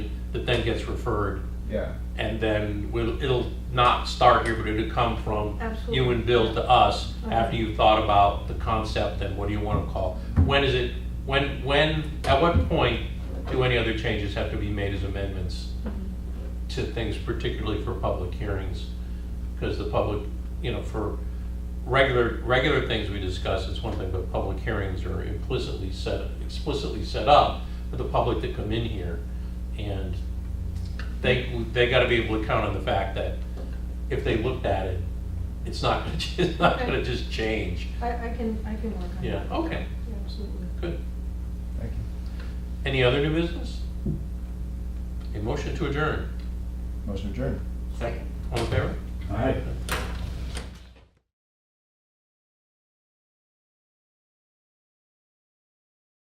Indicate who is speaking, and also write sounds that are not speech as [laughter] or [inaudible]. Speaker 1: that then gets referred,
Speaker 2: Yeah,
Speaker 1: and then we'll, it'll not start here, but it'll come from you
Speaker 3: Absolutely.
Speaker 1: and Bill to us after
Speaker 3: Okay.
Speaker 1: you've thought about the concept and what do you want to call? When is it, when, when, at what point do any other changes have to be made as amendments
Speaker 3: Mm-hmm.
Speaker 1: to things, particularly for public hearings? Because the public, you know, for regular, regular things we discuss, it's one thing, but public hearings are implicitly set, explicitly set up for the public to come in here. And they, they gotta be able to count on the fact that if they looked at it, it's not gonna, [laughs] it's not gonna just change.
Speaker 3: I, I can, I can work on that.
Speaker 1: Yeah, okay,
Speaker 3: Yeah, Absolutely.
Speaker 1: good.
Speaker 2: thank you.
Speaker 1: Any other new business? A motion to adjourn.
Speaker 2: Motion adjourned.
Speaker 1: All in favor?
Speaker 4: All right.